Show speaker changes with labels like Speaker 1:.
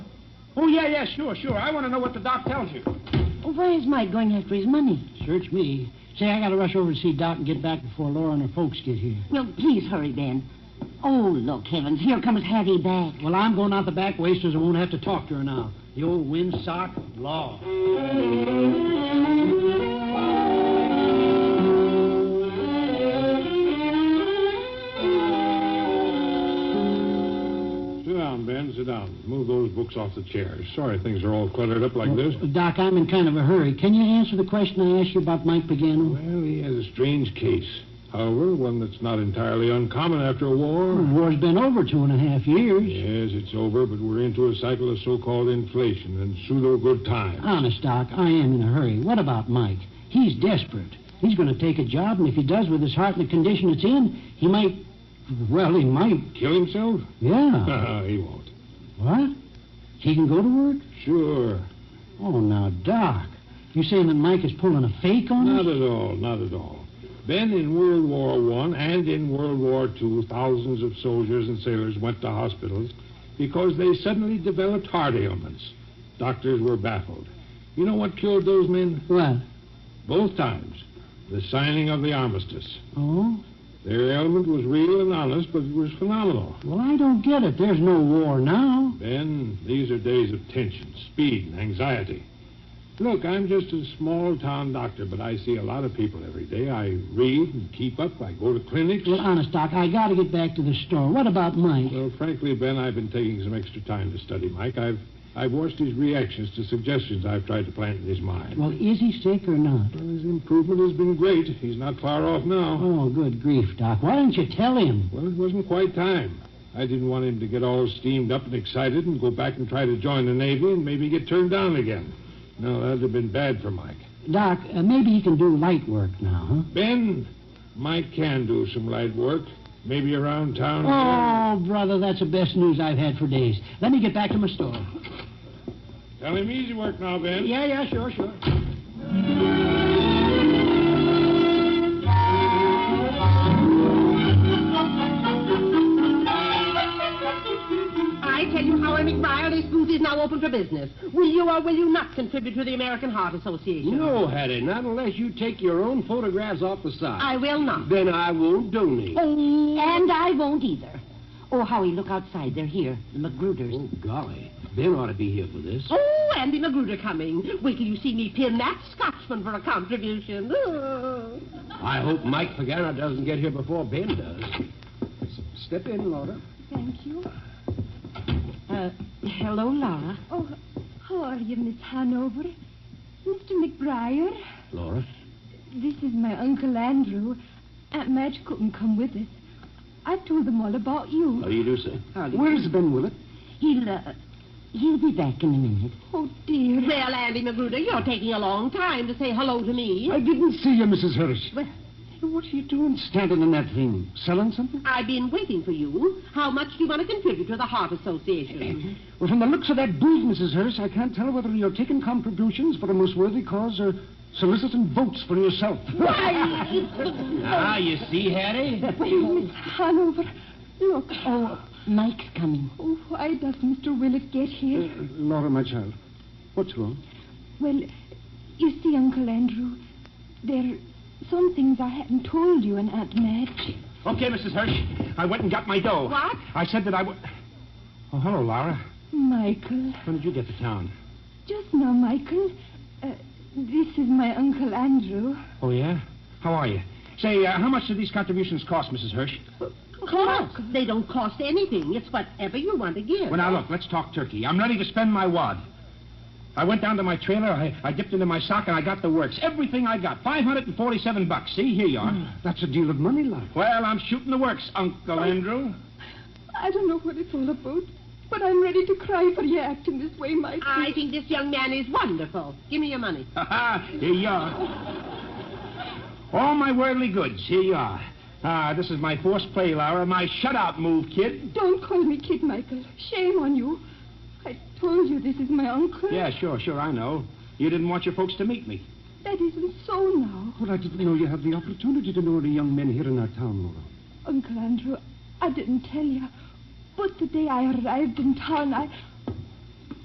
Speaker 1: Oh, yeah, yeah, sure, sure. I want to know what the doc tells you.
Speaker 2: Well, why is Mike going after his money?
Speaker 3: Search me. Say, I gotta rush over to see Doc and get back before Laura and her folks get here.
Speaker 2: Well, please hurry, Ben. Oh, look, heavens, here comes Hattie back.
Speaker 3: Well, I'm going out the back way so I won't have to talk to her now. The old windsock law.
Speaker 1: Sit down, Ben. Sit down. Move those books off the chairs. Sorry things are all cluttered up like this.
Speaker 3: Doc, I'm in kind of a hurry. Can you answer the question I asked you about Mike Pagano?
Speaker 1: Well, he has a strange case. However, one that's not entirely uncommon after a
Speaker 3: The
Speaker 1: war.
Speaker 3: war's been over two and a half years.
Speaker 1: Yes, it's over, but we're into a cycle of so-called inflation and pseudo good times.
Speaker 3: Honest, Doc, I am in a hurry. What about Mike? He's desperate. He's going to take a job, and if he does with his heart in the condition it's in, he might. Well, he might.
Speaker 1: Kill himself?
Speaker 3: Yeah.
Speaker 1: he won't.
Speaker 3: what? He can go to work?
Speaker 1: Sure.
Speaker 3: Oh, now, Doc. You saying that Mike is pulling a fake on us?
Speaker 1: Not at all, not at all. Then in World War One and in World War Two, thousands of soldiers and sailors went to hospitals because they suddenly developed heart ailments. Doctors were baffled. You know what killed those men?
Speaker 3: What?
Speaker 1: Both times. The signing of the armistice.
Speaker 3: Oh?
Speaker 1: Their ailment was real and honest, but it was phenomenal.
Speaker 3: Well, I don't get it. There's no war now.
Speaker 1: Ben, these are days of tension, speed, and anxiety. Look, I'm just a small town doctor, but I see a lot of people every day. I read and keep up. I go to clinics.
Speaker 3: Well, honest, Doc, I got to get back to the store. What about Mike?
Speaker 1: Well, frankly, Ben, I've been taking some extra time to study Mike. I've I've watched his reactions to suggestions I've tried to plant in his mind.
Speaker 3: Well, is he sick or not?
Speaker 1: Well, his improvement has been great. He's not far off now.
Speaker 3: Oh, good grief, Doc. Why don't you tell him?
Speaker 1: Well, it wasn't quite time. I didn't want him to get all steamed up and excited and go back and try to join the Navy and maybe get turned down again. No, that'd have been bad for Mike.
Speaker 3: Doc, uh, maybe he can do light work now, huh?
Speaker 1: Ben, Mike can do some light work. Maybe around town.
Speaker 3: Oh, brother, that's the best news I've had for days. Let me get back to my store.
Speaker 1: Tell him easy work now, Ben.
Speaker 3: Yeah, yeah, sure, sure.
Speaker 4: I tell you, Howard McBride, this booth is now open for business. Will you or will you not contribute to the American Heart Association?
Speaker 5: No, Hattie, Oh, not unless you take your own photographs off the side.
Speaker 4: I will not.
Speaker 5: Then I won't donate.
Speaker 2: Oh, and I won't either. Oh, Howie, look outside. They're here. The Magruders.
Speaker 5: Oh, golly. Ben ought to be here for this.
Speaker 4: Oh, Andy Magruder coming. Wait till you see me pin that Scotchman for a contribution. Oh.
Speaker 5: I hope Mike Pagano doesn't get here before Ben does. Step in, Laura.
Speaker 6: Thank you.
Speaker 2: Uh, hello, Laura.
Speaker 6: Oh, how are you, Miss Hanover? Mr. McBriar,
Speaker 5: Laura?
Speaker 6: this is my Uncle Andrew. Aunt Madge couldn't come with us. I told them all about you.
Speaker 5: How do you do, sir?
Speaker 3: Where's Ben Willett?
Speaker 2: He'll, uh, he'll be back in a minute.
Speaker 6: Oh, dear.
Speaker 4: Well, Andy Magruder, you're taking a long time to say hello to me.
Speaker 3: didn't see you, Mrs. Hirsch.
Speaker 4: Well,
Speaker 3: What are you doing standing in that thing? Selling something?
Speaker 4: I've been waiting for you. How much do you want to contribute to the Heart Association?
Speaker 3: Well, from the looks of that booth, Mrs. Hirsch, I can't tell whether you're taking contributions for a most worthy cause or soliciting votes for yourself.
Speaker 5: Ah, you see, Hattie?
Speaker 6: Miss Hanover, look.
Speaker 2: Oh, Mike's coming.
Speaker 6: Oh, why does Mr. Willett get here?
Speaker 3: Laura, my child, what's wrong?
Speaker 6: Well, you see, Uncle Andrew, there are some things I hadn't told you and Aunt Madge.
Speaker 7: Okay, Mrs. Hirsch. I went and got my dough.
Speaker 4: What?
Speaker 7: I said that I would. Oh, hello, Laura.
Speaker 6: Michael.
Speaker 7: When did you get to town?
Speaker 6: Just now, Michael. Uh, this is my Uncle Andrew.
Speaker 7: Oh, yeah? How are you? Say, uh, how much do these contributions cost, Mrs. Hirsch?
Speaker 4: Cost. They don't cost anything. It's whatever you want to give.
Speaker 7: Well, now, look, let's talk turkey. I'm ready to spend my wad. I went down to my trailer, I, I dipped into my sock, and I got the works. Everything I got. 547 bucks. See, here you
Speaker 2: Hmm.
Speaker 7: are.
Speaker 3: That's a deal of money, Laura.
Speaker 7: Well, I'm shooting the works, Uncle Andrew.
Speaker 6: I don't know what it's all about, but I'm ready to cry for you acting this way, Michael.
Speaker 4: I think this young man is wonderful. Give me your money.
Speaker 7: Ha ha! Here you are. All my worldly goods, here you are. Ah, this is my forced play, Laura. My shutout move, kid.
Speaker 6: Don't call me kid, Michael. Shame on you. I told you this is my uncle.
Speaker 7: Yeah, sure, sure, I know. You didn't want your folks to meet me.
Speaker 6: That isn't so now.
Speaker 3: Well, I didn't know you had the opportunity to know any young men here in our town, Laura.
Speaker 6: Uncle Andrew, I didn't tell you, but the day I arrived in town, I,